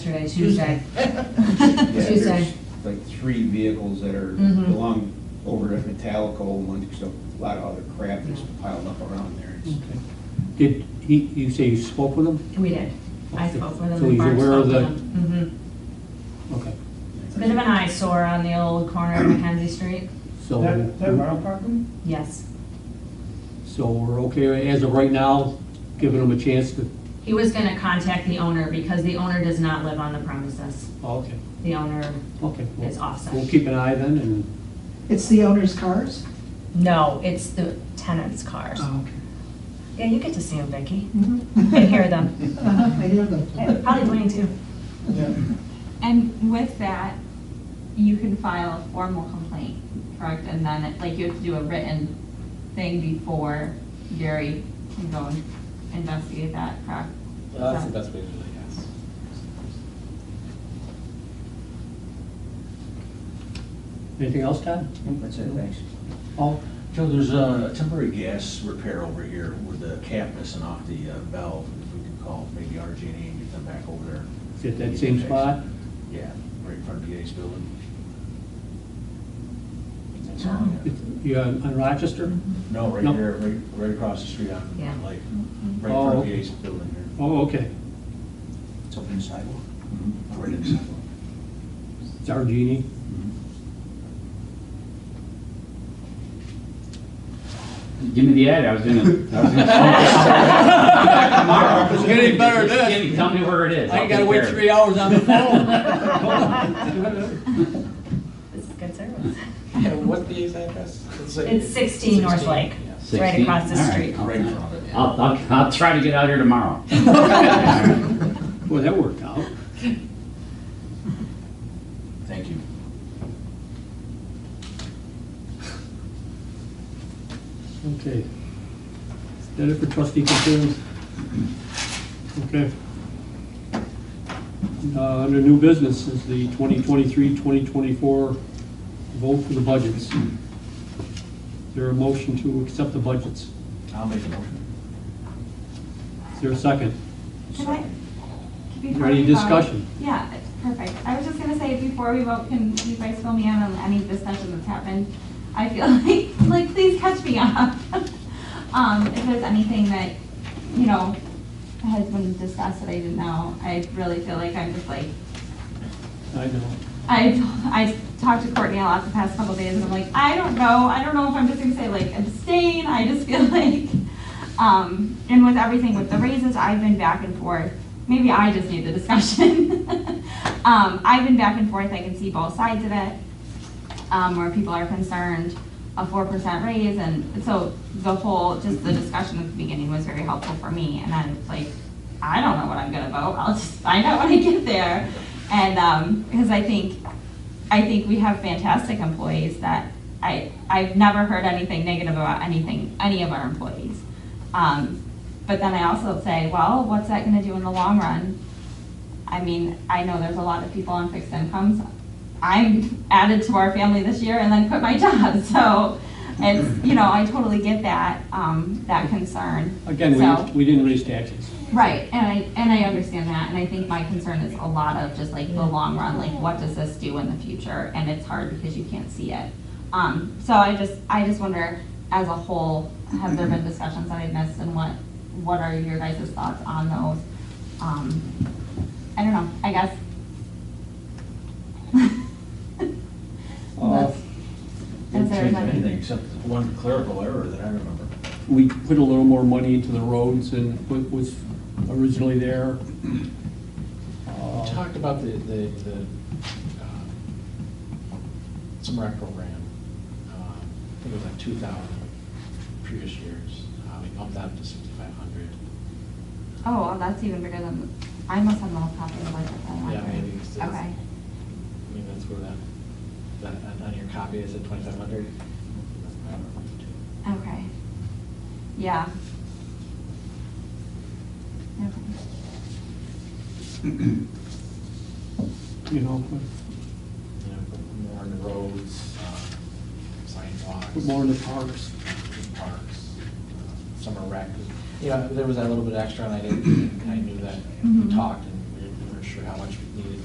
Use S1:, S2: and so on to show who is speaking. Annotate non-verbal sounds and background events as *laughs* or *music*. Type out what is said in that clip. S1: yesterday, Tuesday.
S2: *laughs* Yeah,
S1: Tuesday. *laughs*
S2: there's Like three vehicles that are,
S1: Mhm.
S2: belong over at Metallico, and one, so a lot of other crap is piled up around there. It's-
S3: Mm. Did he, you say you spoke with him?
S1: We did. I spoke with him
S3: So
S1: and
S3: he's
S1: Barb
S3: aware
S1: spoke
S3: of
S1: with
S3: the-
S1: him.
S3: Okay,
S1: Mhm. It's a Bit of an eyesore on the old corner of Mackenzie Street.
S3: so.
S4: That, that rental property?
S1: Yes.
S3: So we're okay, as of right now, giving him a chance to,
S1: He was gonna contact the owner because the owner does not live on the premises.
S3: oh, okay,
S1: The owner,
S3: okay. we'll-
S1: It's awesome.
S3: We'll keep an eye then and,
S5: It's the owner's cars?
S1: no, it's the tenant's cars.
S3: Oh.
S1: Yeah, you get to see them, Vicki, and
S5: okay.
S1: hear them.
S5: Uh-huh, I hear
S1: Yeah,
S5: them.
S1: Probably Dwayne too.
S4: Yeah.
S6: And with that, you can file a formal complaint, correct? And then, it- like, you have to do a written thing before Gary can go and investigate that, correct?
S7: Well, That's
S6: So-
S7: the best way to do it, I guess.
S3: anything else, Todd?
S2: That's it, thanks.
S3: Oh,
S8: Joe, there's a temporary gas repair over here with the cap missing off the uh, valve. If we could call maybe RG&E and get them back over there.
S3: is it that same spot?
S8: Yeah, right in front of PA's building. That's all I have.
S3: You on on Rochester?
S8: No, right
S3: No.
S8: here, right, right across the street
S1: Yeah.
S8: on, like, right in front
S3: Oh.
S8: of PA's building here.
S3: Oh, okay,
S8: It's open sidewalk. Mm-hmm. Right in the sidewalk.
S3: it's our genie.
S8: Mm-hmm.
S7: Give me the ad, I was gonna. I was gonna- Tomorrow.
S3: It's *laughs* getting better than this.
S7: Give me- Tell me where it is. I'll take care of it.
S3: hours on the *laughs*
S1: This is good service.
S7: *laughs* And what the address?
S1: It's 16 North Lake, It's right
S7: 16?
S1: across the
S7: All right,
S1: street.
S7: I'll-
S8: Right in front of it.
S7: I'll, I'll, I'll try to get out here tomorrow.
S1: *laughs*
S3: Boy, that worked out.
S8: Thank you.
S3: Okay. Is that it for trustee concerns? Okay. Uh, Under new business is the 2023-2024 vote for the budgets. Is there a motion to accept the budgets?
S8: I'll make a motion.
S3: Is there a second?
S6: Could I? before
S3: Any
S6: we vote-
S3: discussion?
S6: Yeah, perfect. I was just gonna say, before we vote, can you guys fill me in on any discussion that's happened? I feel *laughs* like, like, please catch me up. *laughs* Um, if there's anything that, you know, has been discussed that I didn't know, I really feel like I'm just like,
S3: I know.
S6: I, I talked to Courtney a lot the past couple days, and I'm like, I don't know, I don't know if I'm just gonna say like abstain, I just feel *laughs* like, um, and with everything with the raises, I've been back and forth, maybe I just need the discussion. *laughs* Um, I've been back and forth, I can see both sides of it, um, where people are concerned a four percent raise, and so the whole, just the discussion at the beginning was very helpful for me, and then it's like, I don't know what I'm gonna vote, I'll just find out *laughs* when I get there. And, um, because I think, I think we have fantastic employees that, I, I've never heard anything negative about anything, any of our employees. Um, but then I also say, well, what's that gonna do in the long run? I mean, I know there's a lot of people on fixed incomes. I'm added to our family this year and then quit my *laughs* job, so it's, you know, I totally get that, um, that concern.
S3: Again,
S6: So-
S3: we we didn't raise taxes.
S6: Right, and I, and I understand that, and I think my concern is a lot of just like the long run, like what does this do in the future? And it's hard because you can't see it. Um, so I just, I just wonder, as a whole, have there been discussions that I missed and what, what are your guys' thoughts on those? Um, I don't know, I
S7: *laughs*
S6: guess.
S3: Uh,
S6: Is
S8: Didn't
S6: there
S8: change
S6: another-
S8: anything except one clerical error that I remember.
S3: We put a little more money into the roads than what was originally there.
S7: We
S3: Uh,
S7: talked about the, the, the, um, some rec program, um, I think it was like two thousand previous years, uh, we bumped that up to sixty-five hundred.
S6: Oh, well, that's even bigger than, I must have lost copy of the budget. that I
S7: Yeah,
S6: have.
S7: maybe it's, it's-
S6: Okay.
S7: I mean, that's where that, that, on your copy, it said twenty-five hundred.
S6: Okay. Yeah. Okay.
S3: Uh, You know,
S7: You know, put more in the roads, um, sidewalks.
S3: put more in the parks.
S7: in parks, uh, summer rec. You know, there was that little bit extra and I didn't, and I knew that, we
S6: Mhm.
S7: talked and we were- we were sure how much we needed